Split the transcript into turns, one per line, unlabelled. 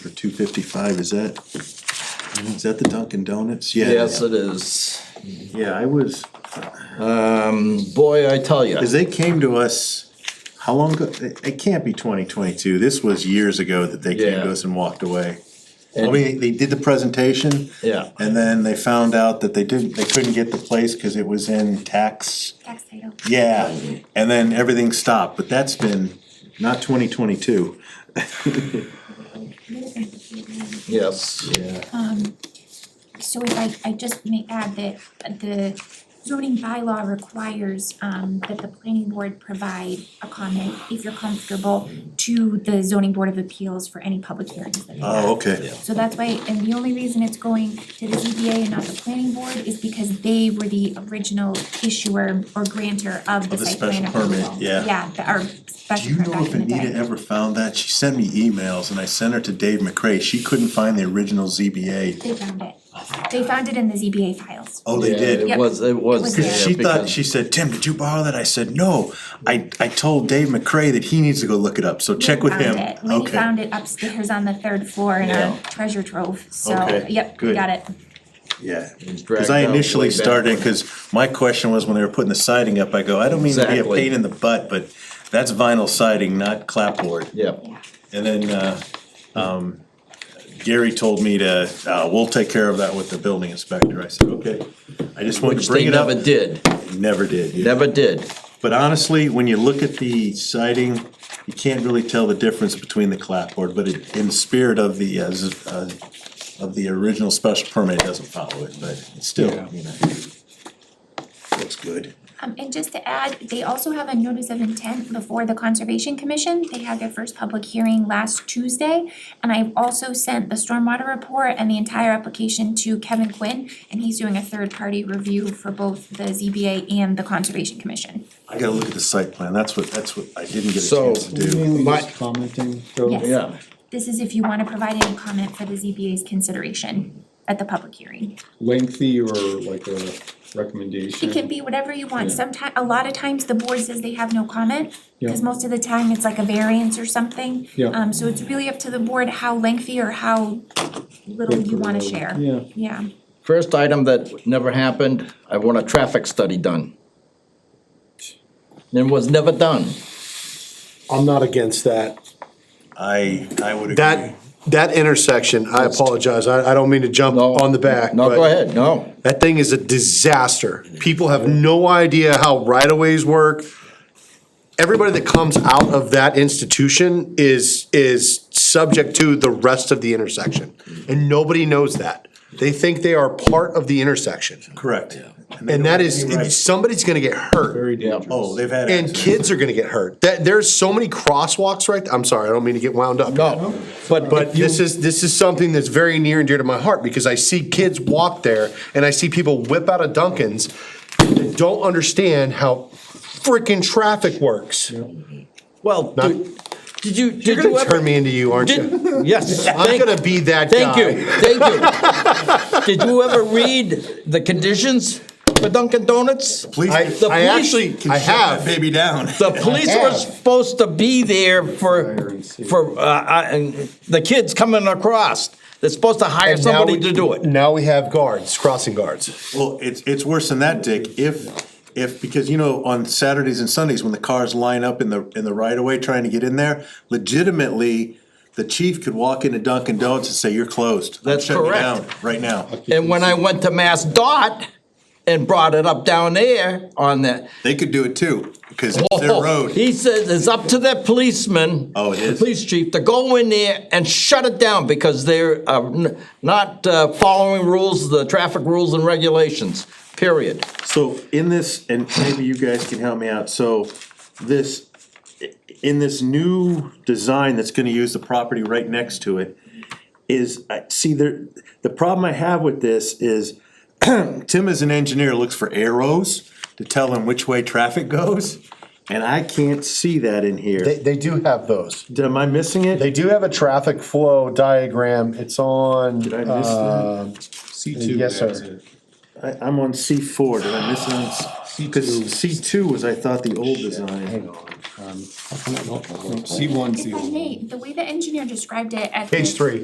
two fifty-five, is that, is that the Dunkin' Donuts? Yeah,
Yes, it is.
Yeah, I was,
Um,
Boy, I tell you.
cause they came to us, how long ago, it, it can't be twenty twenty-two, this was years ago that they came
Yeah.
to us and walked away. I mean, they did the presentation.
Yeah.
And then they found out that they didn't, they couldn't get the place because it was in tax,
Tax title.
yeah, and then everything stopped, but that's been not twenty twenty-two.
Yes.
So if I, I just may add that the zoning bylaw requires, um, that the planning board provide a comment, if you're comfortable, to the zoning board of appeals for any public hearings that they have.
Oh, okay,
So that's why, and the only reason it's going to the ZBA and not the planning board is because they were the original issuer or grantor of the
the
site plan
special permit,
approval.
yeah.
Yeah, the- our
Do
special
you
permit
know
back
if
in the day.
Anita ever found that? She sent me emails and I sent her to Dave McCray. She couldn't find the original ZBA.
They found it. They found it in the ZBA files.
Oh, they
Yeah,
did.
It
Yep.
was, it was.
was
there
there.
She thought,
because-
she said, Tim, did you borrow that? I said, no. I, I told Dave McCray that he needs to go look it up, so check with him.
Found it. We
Okay.
found it upstairs on the third floor in
Yeah.
our treasure trove, so,
Okay,
yep, we
good.
got it.
Yeah.
was
Cause
dragged
I
out way
initially
back
started,
when.
cause my question was when they were putting the siding up, I go, I don't mean to be a
Exactly.
pain in the butt, but that's vinyl siding, not clapboard.
Yeah.
Yeah.
And then, uh, um, Gary told me to, uh, we'll take care of that with the building inspector. I said, okay. I just wanted
Which
to
they
bring it up.
never did,
Never did. yeah.
never did.
But honestly, when you look at the siding, you can't really tell the difference between the clapboard, but it, in spirit of the, uh, z- uh, of the original special permit, it doesn't follow it, but it's still, you know. Looks good.
Um, and just to add, they also have a notice of intent before the Conservation Commission. They had their first public hearing last Tuesday. And I've also sent the stormwater report and the entire application to Kevin Quinn, and he's doing a third-party review for both the ZBA and the Conservation Commission.
I gotta look at the site plan, that's what, that's what I didn't get a
So-
chance to do.
My-
Just commenting, so-
Yes.
Yeah.
This is if you wanna provide any comment for the ZBA's consideration at the public hearing.
lengthy or like a recommendation?
It can be whatever you want.
Yeah.
Sometime, a lot of times the board says they have no comment, cause
Yeah.
most of the time it's like a variance or something.
Yeah.
Um, so it's really up to the board how lengthy or how little you wanna share.
Yeah.
Yeah,
First item that never happened, I want a traffic study done. And was never done.
I'm not against that.
I, I would agree.
That, that intersection, I apologize, I, I don't mean to jump
No.
on the back.
No,
but
go ahead, no.
That thing is a disaster. People have no idea how right-of-ways work. Everybody that comes out of that institution is, is subject to the rest of the intersection. And nobody knows that. They think they are part of the intersection.
Correct. they
And
don't
that
have
is,
any rights.
somebody's gonna get hurt.
Very
Yeah.
Oh, they've had.
And
accidents.
kids are gonna get hurt. That, there's so many crosswalks right, I'm sorry, I don't mean to get wound up.
No, but,
But this is, this is something that's very near and dear to my heart, because I see kids walk there, and I see people whip out of Dunkin's that don't understand how frickin' traffic works.
well,
Not-
did did you, did you
You're
ever?
gonna turn me into you, aren't you?
Did, yes.
I'm
thank-
gonna be that guy.
Thank you, thank you. Did you ever read the conditions for Dunkin' Donuts?
Please,
I,
the
I
police
actually,
can
I
shut that
have,
baby down.
The police were supposed to be there for, for, uh, uh, and the kids coming across. They're supposed to hire
And now
somebody
we-
to do it.
now we have guards, crossing guards.
Well, it's, it's worse than that, Dick, if, if, because you know, on Saturdays and Sundays, when the cars line up in the, in the right of way trying to get in there, legitimately, the chief could walk into Dunkin' Donuts and say, you're closed. I'm
That's
shutting you down
correct.
Right now,
And when I went to Mass Dot and brought it up down there on that.
they could do it too, because it's their road,
He says it's up to that policeman.
Oh, it
the
is?
Police chief to go in there and shut it down because they're uh, n- not uh, following rules, the traffic rules and regulations, period.
so in this, and maybe you guys can help me out, so this, in this new design that's gonna use the property right next to it, is, I, see, there, the problem I have with this is, Tim as an engineer looks for arrows to tell him which way traffic goes, and I can't see that in
They,
here.
they do have those.
Am I missing it?
They do have a traffic flow diagram, it's on. uh, Did
I miss that?
C
Yes, sir.
I, I'm on C four, did I miss it on? C Cause C two was, I thought, the old design.
Hang on, um, no, C one's the
if I
old one.
may, the way the engineer described it at the.
Page three.